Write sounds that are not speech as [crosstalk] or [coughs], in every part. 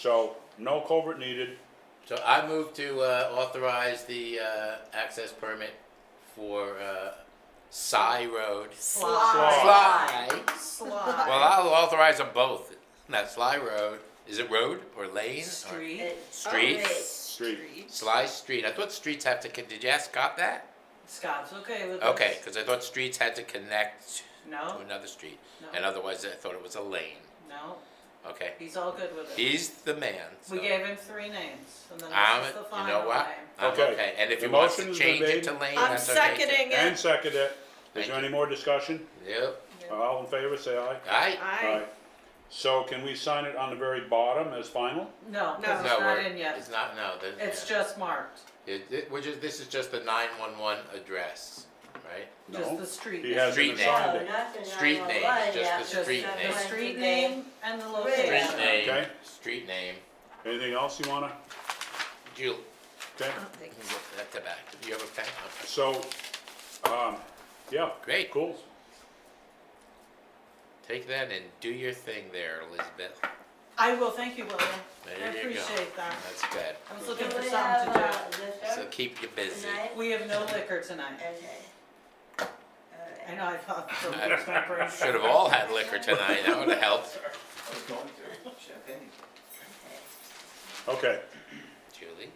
So no culvert needed. So I move to uh, authorize the uh, access permit for uh, Sly Road. Sly. Sly. Sly. Well, I'll authorize them both. Not Sly Road. Is it road or lane? or- Street. Oh, Street. Street. Sly Street. I thought streets have to. con- Did you ask Scott that? Scott's okay with Okay, this. because I thought streets had to connect to No, another street, and Oh. no, otherwise I thought it was a lane. no, Okay, he's all good with it. he's the man. We so gave him three names, and then I'm. this is the You know final what? name. I'm Okay. okay. And if The he wants to motion's change been it to lane, I'm that's okay. too. seconding And it. second it. Is Thank there any more discussion? Yep. All in favor, say aye. Aye. Aye. So can we sign it on the very bottom as final? No, No. because No, it's not we're- in It's yet. not, no, the- It's yeah. just marked, It, it, we're just, this is just the nine-one-one address, right? just No. the street. He hasn't Street name. assigned it. not the Street name, 911, just yeah, the street that name. The went street today. name and the Yeah. Street location. name, Okay. street name, Anything else you wanna, Jill, okay? Uh-huh. you can get that to back, do you have a pen? Okay. So, um, yeah, Great, cool. take that and do your thing there, Elizabeth, I will, thank you, William. there I you go. appreciate that. That's good, I was Do looking we for have, something to uh, so liquor keep you busy. tonight? do. We have no liquor tonight. Okay. I know, [laughs] I thought. Should've all had liquor tonight, that would've helped, Okay, Julie.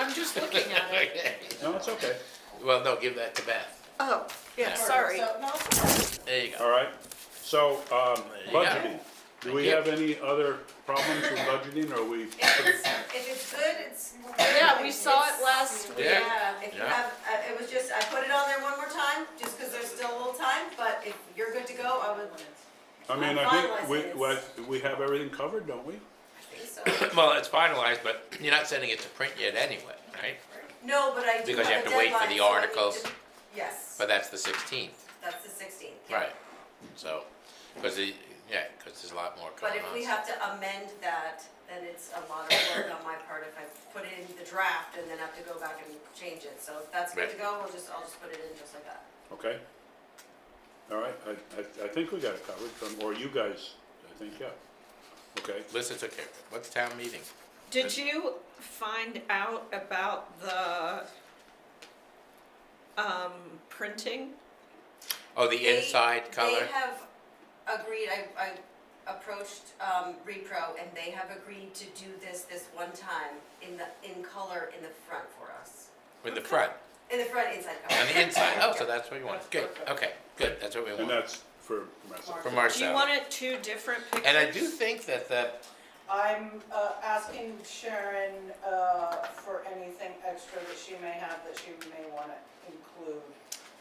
I'm just looking at [laughs] it. Okay. no, it's okay. Well, no, give that to Beth, [laughs] Oh, yeah, sorry. there you go. All right, so, um, you go. budgeting. Do we Thank you. have any other problems with budgeting, or we? If it's, if it's good, it's. Yeah, we saw it last week. Yeah. If you Yeah. have, uh, it was just, I put it on there one more time, just because there's still a little time, but if you're good to go, I would I mean, I'm I think finalizing we, this. we, we have everything covered, don't we? think [coughs] so. Well, it's finalized, but you're not sending it to print yet anyway, right? No, but I do Because you have have to a wait for the deadline, so I need articles. to- Yes, But that's the sixteenth, that's the sixteenth. right? So, because the, yeah, because there's a lot more But going on. if we have to amend that, then it's a lot of work on my part if I put it in the draft and then have to go back and change it. So if that's good to Right. go, we'll just, I'll just put it in just like that. Okay. All right, I, I, I think we got it covered, from- or you guys, I think, yeah. Okay, Listen, it's okay. What's town meeting? Did you find out about the, um, printing? Oh, the They- inside color? They have agreed, I, I approached, um, Repro and they have agreed to do this, this one time in the, in color in the front for us. In the front, In the front inside on cover. the inside. Oh, so that's what you want. Good, okay, good. That's what we and want that's for Marissa. from Do you ourselves. want it two different pictures? And I do think that the, I'm uh, asking Sharon uh, for anything extra that she may have that she may want to include.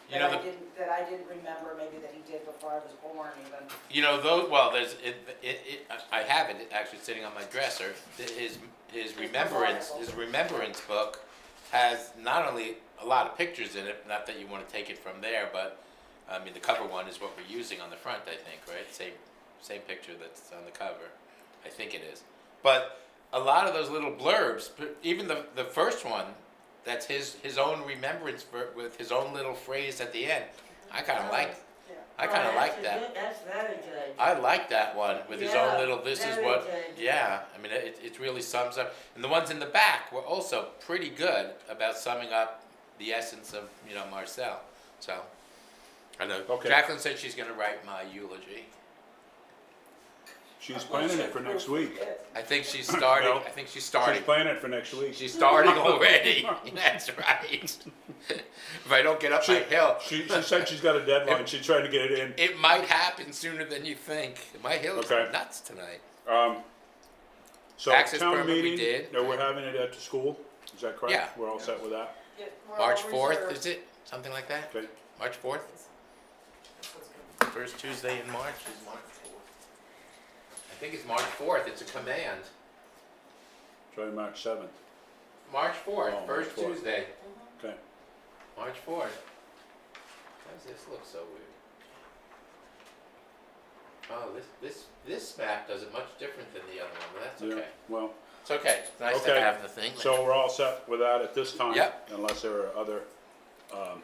you That know, I the didn't, that I didn't remember, maybe that he did before I was born even. You know, though, well, there's, it, it, it, I have it actually sitting on my dresser. Th- His, his remembrance, his remembrance book has not only a lot of pictures in it, not that you wanna take it from there, but, I mean, the cover one is what we're using on the front, I think, right? Same, same picture that's on the cover. I think it is. But a lot of those little blurbs, p- even the, the first one, that's his, his own remembrance ver- with his own little phrase at the end. I kinda like, I kinda like that. That's very good. I like that one with his own Yeah, little. This is very what. good. Yeah, I mean, it, it really sums up. And the ones in the back were also pretty good about summing up the essence of you know Marcel. So, I know. Okay. Jacqueline said she's going to write my eulogy. She's planning it for next week. I [coughs] think she's starting. No. I think she's She's starting. planning it for next week. [laughs] She's starting already. [laughs] That's right. [laughs] if I don't get up She- my hill, She, she said she's got a deadline, she's trying to get it in. it might happen sooner than you think. My hill is Okay. nuts tonight. Um, so Access town permit we meeting, did. no, we're having it at the school, is that correct? Yeah. We're all set with that, Yeah, we're all Oh, March fourth, reserved. is it? Something like that. okay? March fourth. This one's good. First Tuesday in March is March fourth. I think it's March fourth, it's a command. Try March seventh, March fourth, Oh, first March 4th. Tuesday, okay? March fourth. Why does this look so weird? Oh, this, this, this map does it much different than the other one, but that's Yeah, okay. Well, It's okay, it's nice to Okay. have the thing. so we're all set with that at this time. Yep. Unless there are other, um,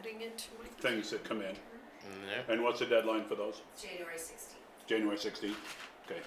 Adding it to my. things that come in. Mhm. And what's the deadline for those? January sixteenth. January sixteenth, okay.